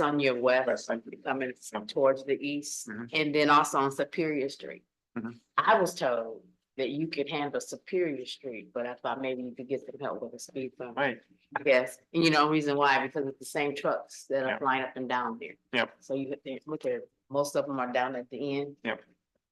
on your west, Thank you. coming towards the east, Mhm. and then also on Superior Street. Mhm. I was told that you could handle Superior Street, but I thought maybe you could get some help with the speed bump. Right, I guess, and you know, reason why, because it's the same trucks that are Yep. flying up and down there. Yep. So you have to look at, most of them are down at the end. Yep.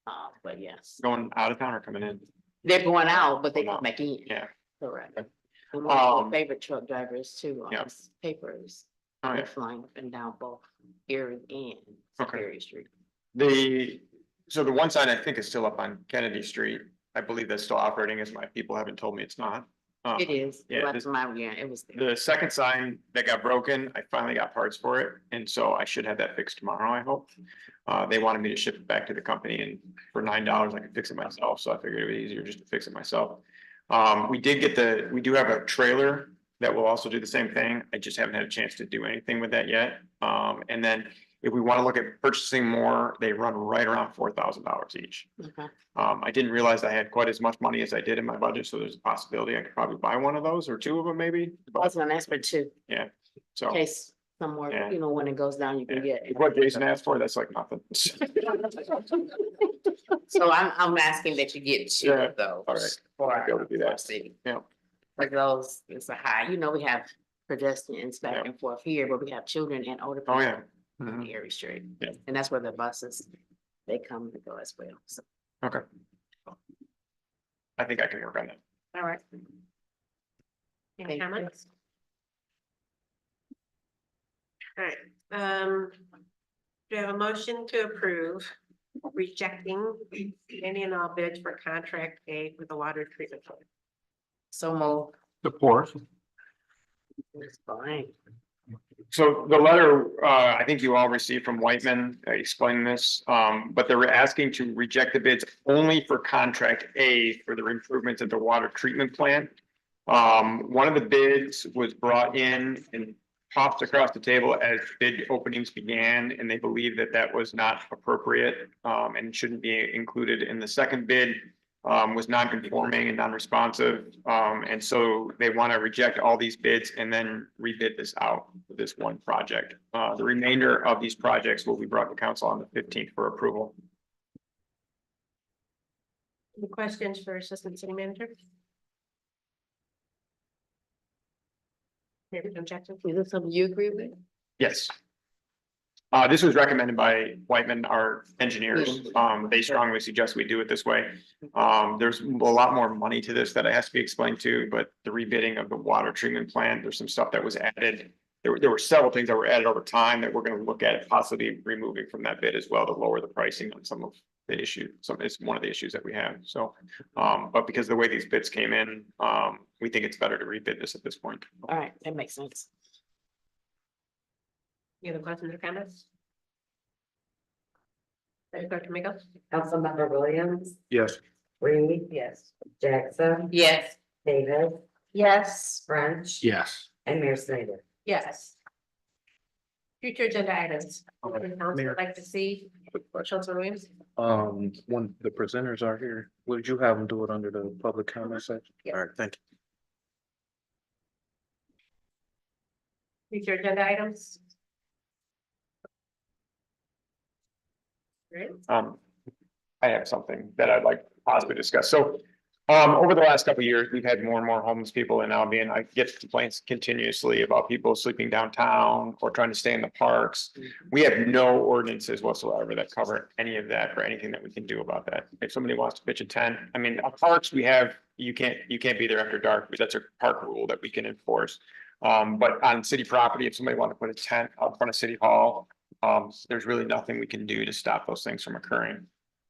Uh, but yes, going out of town or coming in, they're going out, but they Going come out. back in. yeah. Correct. Okay. And one of Um, my favorite truck drivers too, on Yep. his papers, All they're right, flying up and down both Erie and Okay. Superior Street. the, so the one sign I think is still up on Kennedy Street. I believe that's still operating, as my people haven't told me it's not. Uh, It is, yeah, that's this- my, yeah, it was there. The second sign that got broken, I finally got parts for it, and so I should have that fixed tomorrow, I hope. Uh, they wanted me to ship it back to the company and for nine dollars, I could fix it myself, so I figured it was easier just to fix it myself. Um, we did get the, we do have a trailer that will also do the same thing. I just haven't had a chance to do anything with that yet. Um, and then if we want to look at purchasing more, they run right around four thousand dollars each. Okay. Um, I didn't realize I had quite as much money as I did in my budget, so there's a possibility I could probably buy one of those or two of them maybe. I but- was gonna ask for two, so in case somewhere, Yeah. you know, when it goes down, you can get. what Jason asked for, that's like nothing. So I'm, I'm asking that you get two Yeah, of those. For I'll be able to do for that. city. Yeah. For those, it's a high, you know, we have pedestrians back Yeah. and forth here, but we have children and older. Oh, people yeah. on Mhm. Erie Street. Yeah. And that's where the buses, they come and go as well. So, Okay. I think I can work on that. all right. Any Thank you. comments? All right, um, do you have a motion to approve rejecting any and all bids for contract aid with the water treatment? plant? So Mo. Support. It's fine. So the letter, uh, I think you all received from Whitman uh, explaining this, um, but they were asking to reject the bids only for contract A for the improvements at the water treatment plant. Um, one of the bids was brought in and popped across the table as bid openings began, and they believe that that was not appropriate, um, and shouldn't be included in the second bid. um, was non-conforming and non-responsive. Um, and so they want to reject all these bids and then rebid this out for this one project. Uh, the remainder of these projects will be brought to council on the fifteenth for approval. Any questions for Assistant City Manager? Maybe objective, Is this something you agree with? Yes. Uh, this was recommended by Whitman, our engineers. Um, they strongly suggest we do it this way. Um, there's a lot more money to this that has to be explained to, but the rebidding of the water treatment plant, there's some stuff that was added. There were, there were several things that were added over time that we're gonna look at possibly removing from that bid as well to lower the pricing on some of the issue. Some, it's one of the issues that we have, so. Um, but because of the way these bids came in, um, we think it's better to rebid this at this point. All right, that makes sense. any other questions or comments? Deputy Clerk Domingo? Councilmember Williams, Yes. Reed. Yes. Jackson, Yes. Davis, Yes. French. Yes. And Mayor Snyder. Yes. Future agenda items, Okay, Anything else Mayor. you'd like to see, Councilman Williams? Um, when the presenters are here, would you have them do it under the public comment section? Yeah. All right, thank you. Future agenda items? Great. um, I have something that I'd like to possibly discuss. So, um, over the last couple of years, we've had more and more homeless people in Albion. I get complaints continuously about people sleeping downtown or trying to stay in the parks. We have no ordinances whatsoever that cover any of that or anything that we can do about that. If somebody wants to pitch a tent, I mean, our parks, we have, you can't, you can't be there after dark. That's a park rule that we can enforce. Um, but on city property, if somebody wanted to put a tent out front of city hall, um, there's really nothing we can do to stop those things from occurring.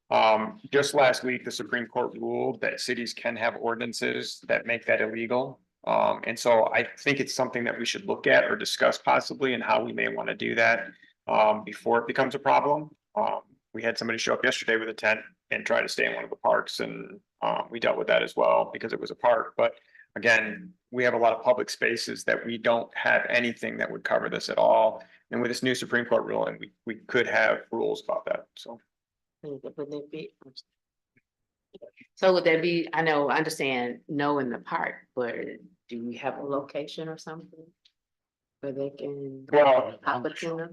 Um, just last week, the Supreme Court ruled that cities can have ordinances that make that illegal. Um, and so I think it's something that we should look at or discuss possibly and how we may want to do that um, before it becomes a problem. Um, we had somebody show up yesterday with a tent and try to stay in one of the parks and um, we dealt with that as well because it was a park, but again, we have a lot of public spaces that we don't have anything that would cover this at all. And with this new Supreme Court ruling, we, we could have rules about that, so. Would that- would that be- So would that be, I know, I understand, no in the park, but do we have a location or something? Where they can Well, pop a tent up?